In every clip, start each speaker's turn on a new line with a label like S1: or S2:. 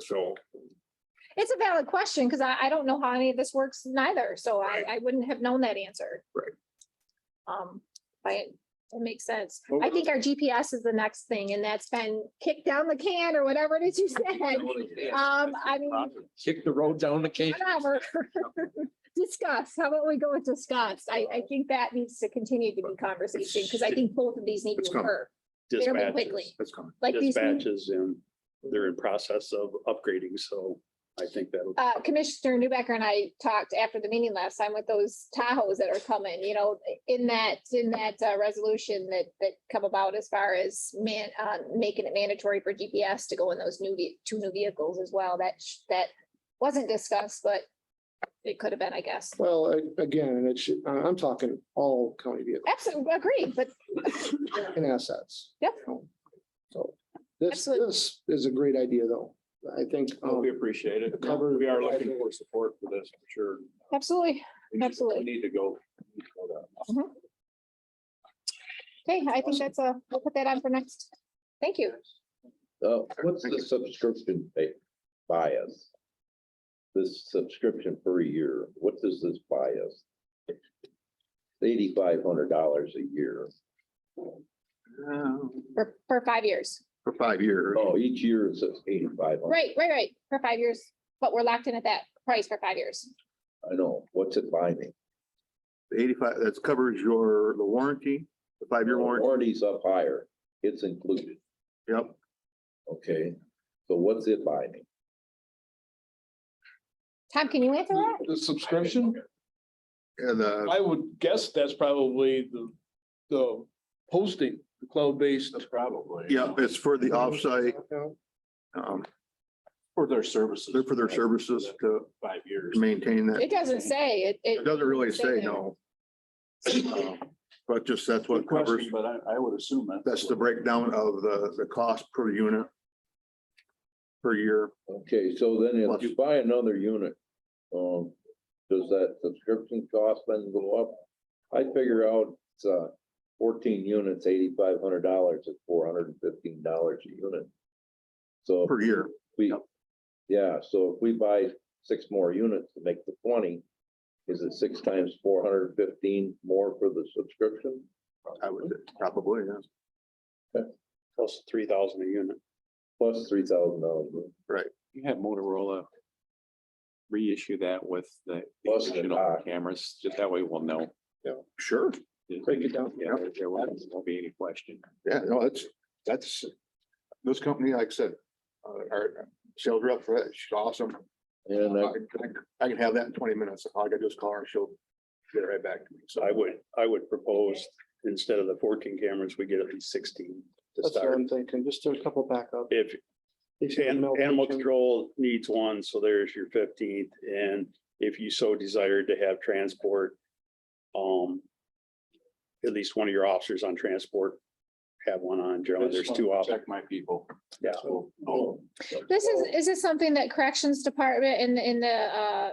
S1: So,
S2: It's a valid question because I, I don't know how any of this works neither, so I,
S1: Right.
S2: I wouldn't have known that answer.
S1: Right.
S2: Um, but it makes sense.
S1: Well-
S2: I think our GPS is the next thing and that's been kicked down the can or whatever it is you said. Um, I mean,
S3: Kick the road down the cane.
S2: whatever. Discuss, how about we go with discuss? I, I think that needs to continue to be conversation because I think both of these need
S1: It's
S2: to
S1: coming.
S2: occur. fairly quickly.
S4: dispatches,
S1: that's coming.
S2: Like these, new-
S4: dispatches, and they're in process of upgrading, so I think that'll.
S2: uh, Commissioner Newbecker and I talked after the meeting last time with those Tahoes that are coming, you know, in that, in that, uh, resolution that, that come about as far as man, uh, making it mandatory for GPS to go in those new, ve- two new vehicles as well. That, sh- that wasn't discussed, but it could have been, I guess.
S5: Well, a- again, it should, I- I'm talking all county vehicles
S2: Absolutely, agree, but
S5: and assets.
S2: Yep.
S5: So this,
S2: Absolutely.
S5: this is a great idea though. I think. um,
S4: We appreciate it.
S5: Cover-
S4: We are looking for support for this, for sure.
S2: absolutely.
S4: We need-
S2: Absolutely.
S4: We need to go. we need to go down.
S2: Okay, I think that's a, we'll put that on for next. Thank you.
S6: Uh, what's the subscription pay, buy us? This subscription per year, what does this buy us? Eighty-five hundred dollars a year. Oh,
S2: For, for five years.
S1: For five years.
S6: Oh, each year is eighty-five hundred.
S2: Right, right, right. For five years, but we're locked in at that price for five years.
S6: I know. What's it buy me?
S1: Eighty-five, that covers your, the warranty, the five-year warranty.
S6: Warranty's up higher. It's included.
S1: Yep.
S6: Okay. So what's it buy me?
S2: Tom, can you answer that?
S3: The subscription,
S1: And uh, the,
S3: I would guess that's probably the, the hosting, the cloud-based.
S4: That's probably.
S1: yeah, it's for the offsite,
S5: Yeah.
S1: um,
S4: For their services.
S1: they're for their services to
S4: Five years.
S1: maintain that.
S2: It doesn't say it.
S1: It doesn't really say
S2: there.
S1: no. Um, But just that's
S4: Good
S1: what covers,
S4: question, But I, I would assume that.
S1: that's the breakdown of the, the cost per unit. Per year.
S6: Okay, so then if
S1: Plus-
S6: you buy another unit, um, does that subscription cost then go up? I figure out, it's, uh, fourteen units, eighty-five hundred dollars, it's four hundred and fifteen dollars a unit. So if
S1: per year.
S6: we, yeah, so if we buy six more units to make the twenty, is it six times four hundred and fifteen more for the subscription?
S1: I would say, probably, yeah.
S4: Plus three thousand a unit.
S6: Plus three thousand dollars,
S7: You have Motorola reissue that with the
S6: Plus the
S7: additional
S6: dock.
S7: cameras, just that way we'll know.
S1: Sure.
S5: Break it down.
S7: Yeah, there- there won't won't be any question.
S1: Yeah, no, that's, that's, this company, like I said, uh, our sales rep for that, she's awesome.
S6: and
S1: I
S6: I,
S1: I can have that in twenty minutes. All I gotta do is call her and she'll get it right back to me. So
S4: I would, I would propose, instead of the fourteen cameras, we get at least sixteen to
S5: That's what
S4: start.
S5: I'm thinking. Just do a couple backup.
S4: If
S5: They should
S4: an-
S5: know-
S4: animal control needs one, so there's your fifteenth, and if you so desired to have transport. Um. At least one of your officers on transport, have one on, generally, there's two officers,
S7: Check my people.
S4: yeah.
S7: So,
S4: Oh,
S2: This is, is this something that corrections department in, in the, uh,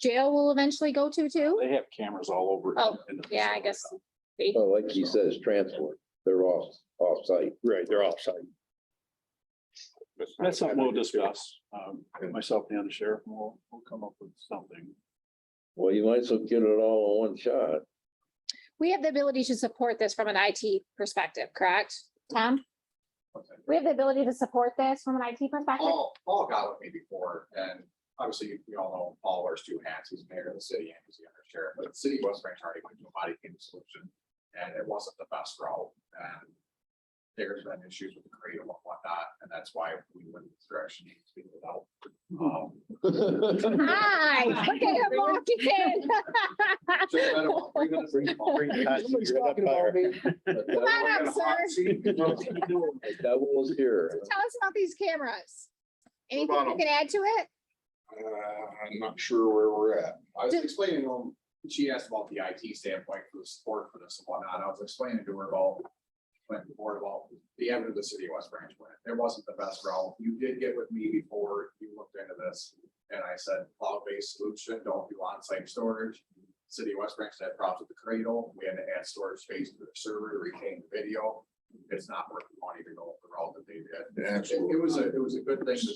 S2: jail will eventually go to too?
S4: They have cameras all over.
S2: Oh,
S4: in the
S2: yeah, I
S4: facility.
S2: guess.
S6: well, like he says, transport, they're off, off-site.
S4: Right, they're offside. That's something we'll discuss, um, myself and the sheriff, and we'll, we'll come up with something.
S6: Well, you might as well get it all in one shot.
S2: We have the ability to support this from an IT perspective, correct, Tom? We have the ability to support this from an IT perspective?
S4: Oh.
S8: Paul, Paul got with me before, and obviously, we all know Paul wears two hats, he's mayor of the city and he's the undersheriff, but the city of West Branch already went to a body cam solution, and it wasn't the best route, and there's been issues with the creative and whatnot, and that's why we went this direction, to be without. um,
S2: Hi, look at him walking in.
S8: so I don't want to bring up- bring- bring-
S5: Somebody's talking about me.
S2: Come on up, sir.
S6: That was here.
S2: Tell us about these cameras. Anything you can add to it?
S8: Uh, I'm not sure where we're at. I was explaining to him, she asked about the IT standpoint for the support for this and whatnot. I was explaining to her about. Went before about the avenue of the city of West Branch went. It wasn't the best route. You did get with me before you looked into this. And I said, cloud-based solution, don't do on-site storage. City of West Branch had problems with the cradle. We had to add storage space to the server to retain the video. It's not worth the money to go the route that they did. It- It was a, it was a good thing to